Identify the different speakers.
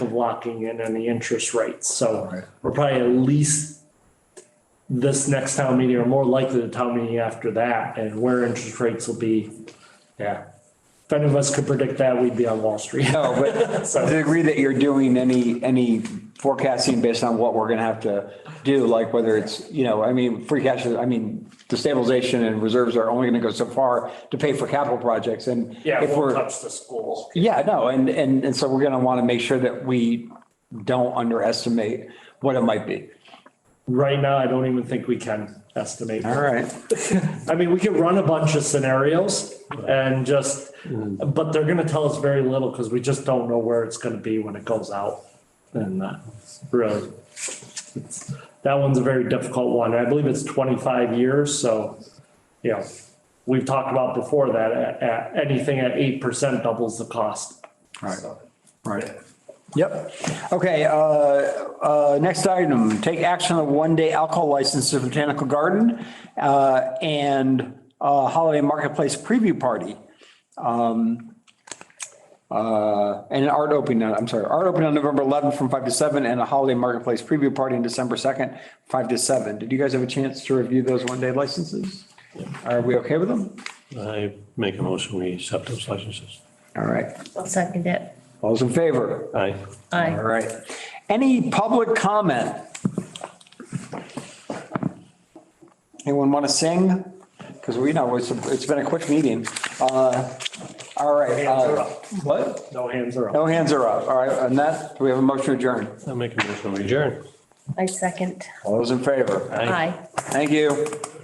Speaker 1: of locking in any interest rates. So
Speaker 2: Alright.
Speaker 1: we're probably at least this next town meeting or more likely the town meeting after that and where interest rates will be. Yeah. If any of us could predict that, we'd be on Wall Street.
Speaker 3: No, but to the degree that you're doing any, any forecasting based on what we're gonna have to do, like whether it's, you know, I mean, free cash, I mean, the stabilization and reserves are only gonna go so far to pay for capital projects and
Speaker 1: Yeah,
Speaker 3: if
Speaker 1: we'll
Speaker 3: we're,
Speaker 1: touch the school.
Speaker 3: yeah, no, and, and, and so we're gonna wanna make sure that we don't underestimate what it might be.
Speaker 1: Right now, I don't even think we can estimate.
Speaker 3: All right.
Speaker 1: I mean, we could run a bunch of scenarios and just, but they're gonna tell us very little because we just don't know where it's gonna be when it goes out. And that, really. it's- That one's a very difficult one. I believe it's twenty-five years, so, you know, we've talked about before that, at, at, anything at eight percent doubles the cost.
Speaker 3: Right, right. Yep. Okay, uh, uh, next item, take action on a one-day alcohol license to Botanical Garden uh, and uh, Holiday Marketplace Preview Party. Um, uh, And an art opening, I'm sorry, art opening on November 11th from 5 to 7 and a Holiday Marketplace Preview Party on December 2nd, 5 to 7. Did you guys have a chance to review those one-day licenses? Are we okay with them?
Speaker 4: I make a motion, we accept those licenses.
Speaker 3: All right,
Speaker 5: I'll second it.
Speaker 3: all those in favor?
Speaker 4: Aye.
Speaker 5: Aye.
Speaker 3: All right. Any public comment? Anyone want to sing? Because we know it's, it's been a quick meeting. Uh, All right.
Speaker 1: Hands are
Speaker 3: uh,
Speaker 1: up.
Speaker 3: What?
Speaker 1: No hands are up.
Speaker 3: No hands are up. All right, and that, do we have a motion to adjourn?
Speaker 4: I make a motion, we adjourn.
Speaker 5: I second.
Speaker 3: All those in favor?
Speaker 5: Aye.
Speaker 3: Thank you.